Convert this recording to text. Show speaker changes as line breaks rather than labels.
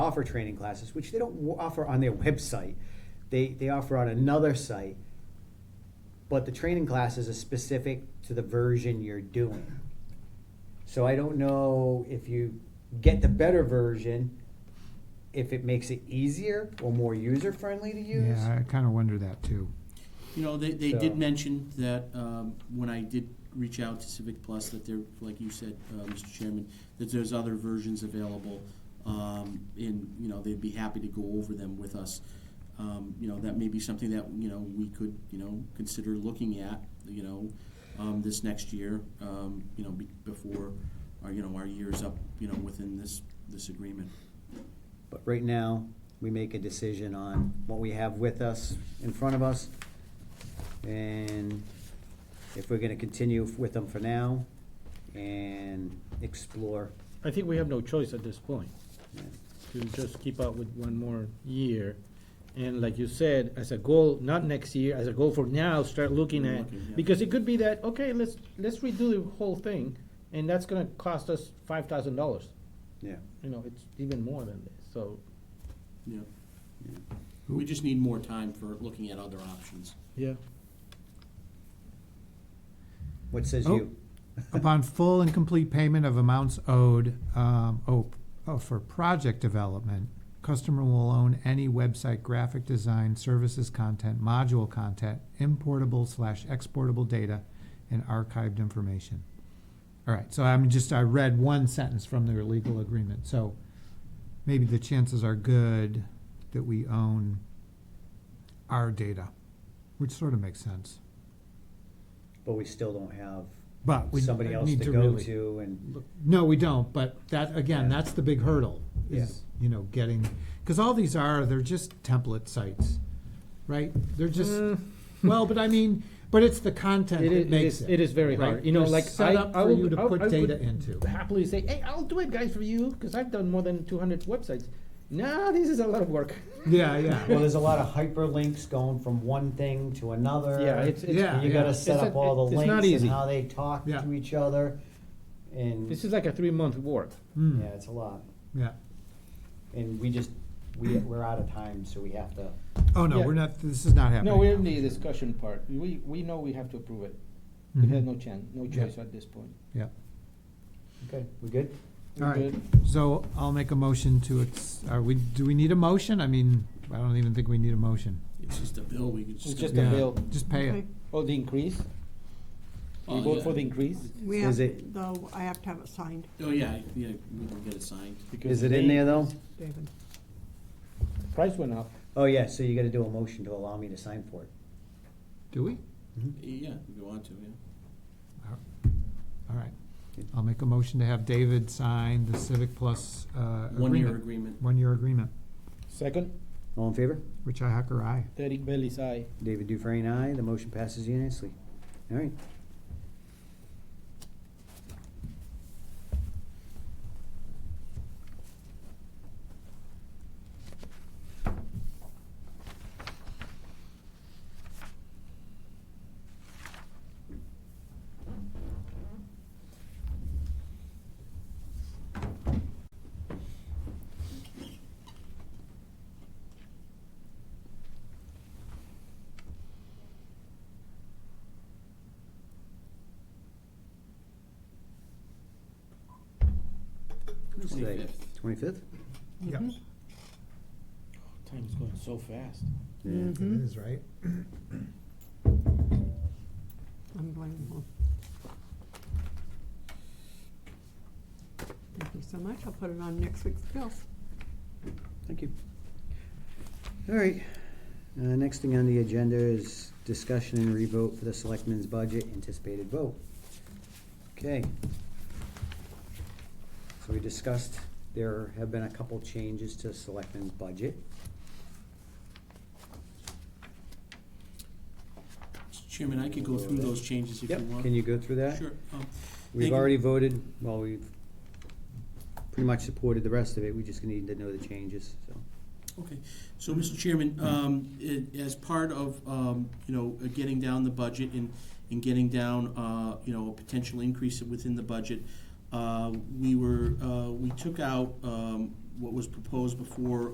offer training classes, which they don't w- offer on their website. They, they offer on another site, but the training classes are specific to the version you're doing. So I don't know if you get the better version, if it makes it easier or more user friendly to use.
Yeah, I kind of wonder that too.
You know, they, they did
So-
mention that, um, when I did reach out to Civic Plus, that there, like you said, uh, Mr. Chairman, that there's other versions available. Um, and, you know, they'd be happy to go over them with us. Um, you know, that may be something that, you know, we could, you know, consider looking at, you know, um, this next year, um, you know, be- before, our, you know, our year is up, you know, within this, this agreement.
But right now, we make a decision on what we have with us, in front of us. And if we're gonna continue with them for now and explore.
I think we have no choice at this point,
yeah.
to just keep up with one more year. And like you said, as a goal, not next year, as a goal for now, start looking at,
Looking, yeah.
because it could be that, okay, let's, let's redo the whole thing, and that's gonna cost us five thousand dollars.
Yeah,
You know, it's even more than this, so,
Yeah.
Yeah.
We just need more time for looking at other options.
yeah.
what says
Oh.
you?
Upon full and complete payment of amounts owed, um, oh, oh, for project development, customer will own any website graphic design, services content, module content, importable slash exportable data, and archived information. All right, so I'm just, I read one sentence from their legal agreement, so maybe the chances are good that we own our data, which sort of makes sense.
But we still don't have
But we
somebody else
need
to go
really-
to and,
No, we don't, but that, again,
Yeah.
that's the big hurdle, is,
Yes.
you know, getting, because all these are, they're just template sites, right? They're just, well, but I mean, but it's the content
Mm. It
that
is, it
makes
is,
it.
it is very
right?
hard, you know,
They're
like, I,
Set up
I
for you
would,
to
I would- I
put data
would
into.
happily say, hey, I'll do it guys for you, cause I've done more than two hundred websites. Nah, this is a lot of work.
Yeah, yeah.
well, there's a lot of hyperlinks going from one thing to another.
Yeah, it's, it's,
Yeah.
You gotta set
It's a-
up all the
it's not
links
easy.
and how they talk
Yeah.
to each other. And,
This is like a three-month work.
Mm,
yeah, it's a lot.
Yeah.
And we just, we, we're out of time, so we have to.
Oh, no,
Yeah.
we're not, this is not happening.
No, we're in
now.
the discussion part. We, we know we have to approve it.
Mhm.
We have no chance, no
Yeah.
choice at this point.
Yeah.
Okay, we good?
All
We're
right.
good.
So I'll make a motion to, ex- are we, do we need a motion? I mean, I don't even think we need a motion.
It's just a bill, we could just.
It's
go-
just a
Yeah,
bill.
Just pay it.
Oh, the increase?
Oh,
We vote
yeah.
for the increase?
We
Is
have,
it-
though, I have to have it signed,
Oh, yeah, yeah, we can get it signed.
because
Is it in there though?
David.
the Price went up.
Oh, yeah, so you gotta do a motion to allow me to sign for it.
Do we?
Mm-hmm.
Yeah, if you want to, yeah.
All right. I'll make a motion to have David sign the Civic Plus uh, agreement.
One-year agreement.
One-year agreement.
Second,
All in favor?
Richi Hacker, aye.
Derek Bailey's aye.
David Dufresne, aye. The motion passes unanimously. All right.
Twenty-fifth.
Twenty-fifth?
Yep.
Time's going so fast.
Yeah.
Mm-hmm.
It is, right?
Unbelievable. Thank you so much. I'll put it on next week's bills.
Thank you. All right. Uh, next thing on the agenda is discussion and revote for the selectmen's budget, anticipated vote. Okay. So we discussed, there have been a couple changes to selectmen's budget.
Chairman, I could go through those changes if you
Yep,
want.
can you go through that?
Sure. Um,
We've
Thank you.
already voted, well, we've pretty much supported the rest of it, we just need to know the changes, so.
Okay, so, Mr. Chairman, um, it- as part of, um, you know, uh, getting down the budget and, and getting down, uh, you know, a potential increase within the budget, uh, we were, uh, we took out, um, what was proposed before